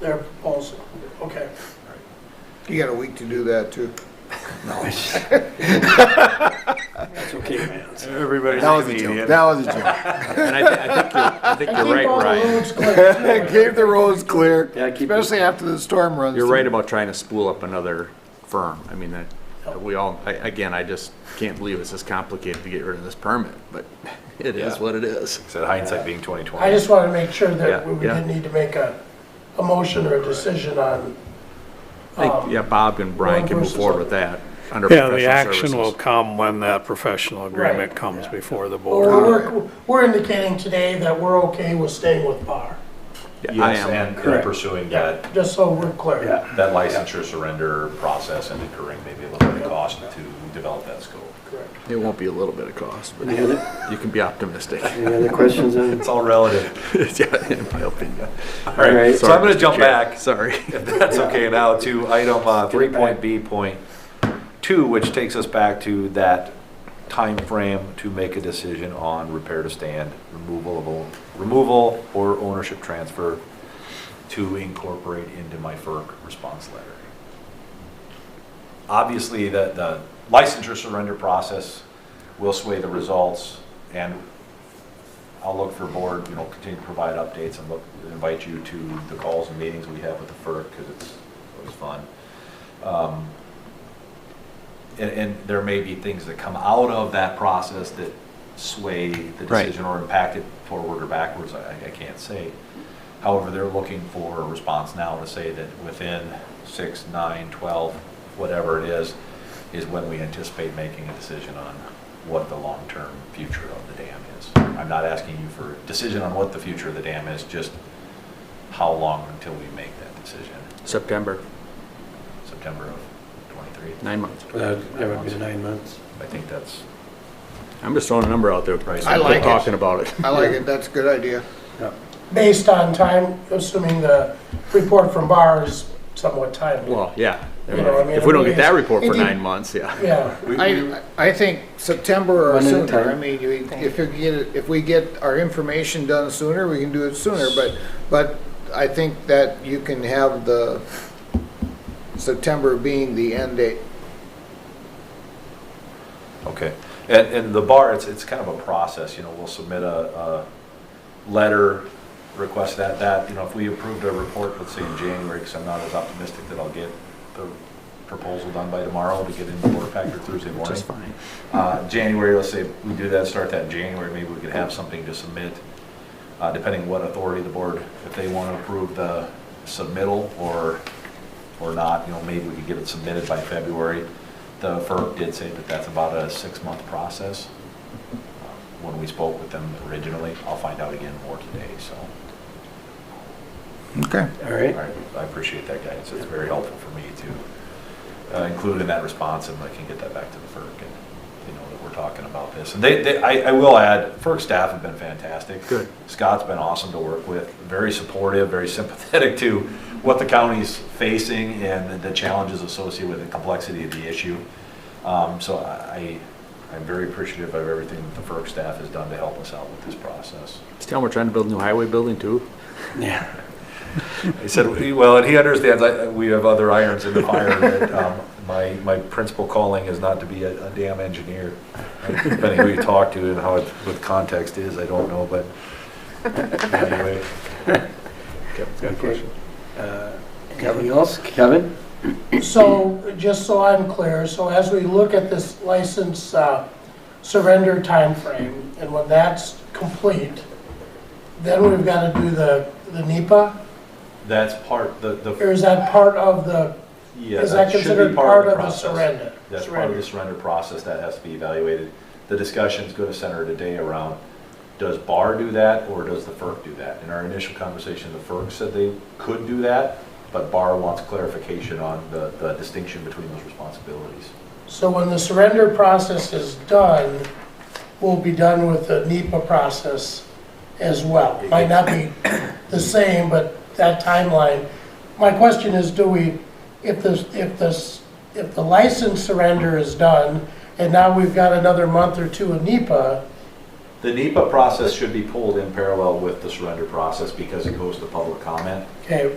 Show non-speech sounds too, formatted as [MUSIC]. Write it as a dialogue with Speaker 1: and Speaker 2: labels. Speaker 1: their proposal. Okay.
Speaker 2: You got a week to do that too.
Speaker 3: That's okay, man.
Speaker 4: Everybody's
Speaker 2: That was a joke. That was a [LAUGHS] joke.
Speaker 4: And I, thi- I think you're, I think you're right,
Speaker 2: [LAUGHS]
Speaker 4: Ryan.
Speaker 2: Gave the roads clear,
Speaker 3: Yeah, keep it-
Speaker 2: especially after the storm runs.
Speaker 4: You're right
Speaker 2: through.
Speaker 4: about trying to spool up another firm. I mean, that, we all, I, again, I just can't believe it's this complicated to get rid of this permit, but [LAUGHS] it is
Speaker 5: Yeah.
Speaker 4: what it is.
Speaker 5: Said hindsight being twenty twenty.
Speaker 1: I just wanted to make sure that
Speaker 4: Yeah,
Speaker 1: we
Speaker 4: yeah.
Speaker 1: didn't need to make a, a motion or a decision on. um,
Speaker 4: I think, yeah, Bob and Brian can move forward with that under
Speaker 3: Yeah,
Speaker 4: professional
Speaker 3: the action will
Speaker 4: services.
Speaker 3: come when that professional agreement
Speaker 1: Right.
Speaker 3: comes before the
Speaker 1: Or
Speaker 3: board.
Speaker 1: we're, we're indicating today that we're okay with staying with Bar,
Speaker 4: Yeah, I
Speaker 5: Yes,
Speaker 4: am.
Speaker 5: and- and
Speaker 3: Correct.
Speaker 5: pursuing that,
Speaker 1: just so we're clear.
Speaker 5: that licensure surrender process and incurring maybe a little bit of cost to develop that scope.
Speaker 1: Correct.
Speaker 4: It won't be a little bit of cost, but
Speaker 3: Any other-
Speaker 4: you can be
Speaker 5: [LAUGHS]
Speaker 4: optimistic.
Speaker 3: any other questions on?
Speaker 5: It's all relative.
Speaker 4: Yeah, in my opinion.
Speaker 5: All right, so
Speaker 4: Sorry,
Speaker 5: I'm gonna
Speaker 4: Mr.
Speaker 5: jump
Speaker 4: Chair.
Speaker 5: back.
Speaker 4: Sorry.
Speaker 5: if that's okay now, to item uh, three point B point two, which takes us back to that time frame to make a decision on repair to stand, removal of, removal or ownership transfer to incorporate into my FERC response letter. Obviously, the, the licensure surrender process will sway the results, and I'll look for board, you know, continue to provide updates and look, invite you to the calls and meetings we have with the FERC, because it's always fun. Um, And, and there may be things that come out of that process that sway the
Speaker 4: Right.
Speaker 5: decision or impact it forward or backwards, I, I can't say. However, they're looking for a response now to say that within six, nine, 12, whatever it is, is when we anticipate making a decision on what the long-term future of the dam is. I'm not asking you for a decision on what the future of the dam is, just how long until we make that decision?
Speaker 4: September,
Speaker 5: September of 23?
Speaker 4: nine months.
Speaker 3: Uh, That would be nine months.
Speaker 5: I think that's,
Speaker 4: I'm just throwing a number out there.
Speaker 5: Right.
Speaker 4: so
Speaker 5: I
Speaker 4: we're
Speaker 2: like it.
Speaker 4: Talking about it.
Speaker 2: I like it. That's a good idea.
Speaker 1: Based on time, assuming the report from Bar is somewhat timely.
Speaker 4: Well, yeah. I
Speaker 1: You
Speaker 4: mean,
Speaker 1: know, I mean,
Speaker 4: If we don't
Speaker 1: it
Speaker 4: get that
Speaker 1: really
Speaker 4: report for
Speaker 2: Indeed.
Speaker 4: nine months, yeah.
Speaker 1: Yeah,
Speaker 2: I, I think September or
Speaker 3: One at
Speaker 2: sooner.
Speaker 3: a time.
Speaker 2: I mean, you- if you get, it- if we get our information done sooner, we can do it sooner, but, but I think that you can have the September being the end date.
Speaker 5: okay. And, and the bar, it's, it's kind of a process, you know, we'll submit a, a letter, request that, that, you know, if we approved a report, let's say in January, because I'm not as optimistic that I'll get the proposal done by tomorrow to get into board factor Thursday morning.
Speaker 4: Which is fine.
Speaker 5: Uh, January, let's say we do that, start that in January, maybe we could have something to submit, uh, depending what authority the board, if they want to approve the submittal or, or not, you know, maybe we could get it submitted by February. The FERC did say that that's about a six-month process. When we spoke with them originally, I'll find out again more today, so.
Speaker 2: Okay.
Speaker 3: All right.
Speaker 5: I I appreciate that guidance, it's very helpful for me to uh, include in that response, and I can get that back to the FERC, and, you know, that we're talking about this. And they, they, I, I will add, FERC staff have been fantastic.
Speaker 4: Good.
Speaker 5: Scott's been awesome to work with, very supportive, very sympathetic to what the county's facing and the challenges associated with the complexity of the issue. Um, so I, I'm very appreciative of everything that the FERC staff has done to help us out with this process.
Speaker 4: Just tell them we're trying to build a new highway building too.
Speaker 3: Yeah.
Speaker 5: He said, well, and he understands, I- we have other irons in the fire, that um, my, my principal calling is not to be a a damn engineer. Depending who you talk to and how, it- what context is, I don't know, but anyway.
Speaker 4: Good
Speaker 3: Okay. Uh, Anything else? Kevin?
Speaker 1: So, just so I'm clear, so as we look at this license uh, surrender timeframe, and when that's complete, then we've got to do the, the NEPA?
Speaker 5: That's part, the,
Speaker 1: Or
Speaker 5: the,
Speaker 1: is that part of the,
Speaker 5: yeah,
Speaker 1: is that
Speaker 5: that should
Speaker 1: considered
Speaker 5: be part of the
Speaker 1: the
Speaker 5: process.
Speaker 1: surrender?
Speaker 5: That's part of
Speaker 1: Surrender.
Speaker 5: the surrender process that has to be evaluated. The discussion's gonna center today around, does BAR do that or does the FERC do that? In our initial conversation, the FERC said they could do that, but BAR wants clarification on the, the distinction between those responsibilities.
Speaker 1: So when the surrender process is done, we'll be done with the NEPA process as well. Might not be the same, but that timeline. My question is, do we, if this, if this, if the license surrender is done, and now we've got another month or two of NEPA,
Speaker 5: The NEPA process should be pulled in parallel with the surrender process because it goes to public comment.
Speaker 1: okay,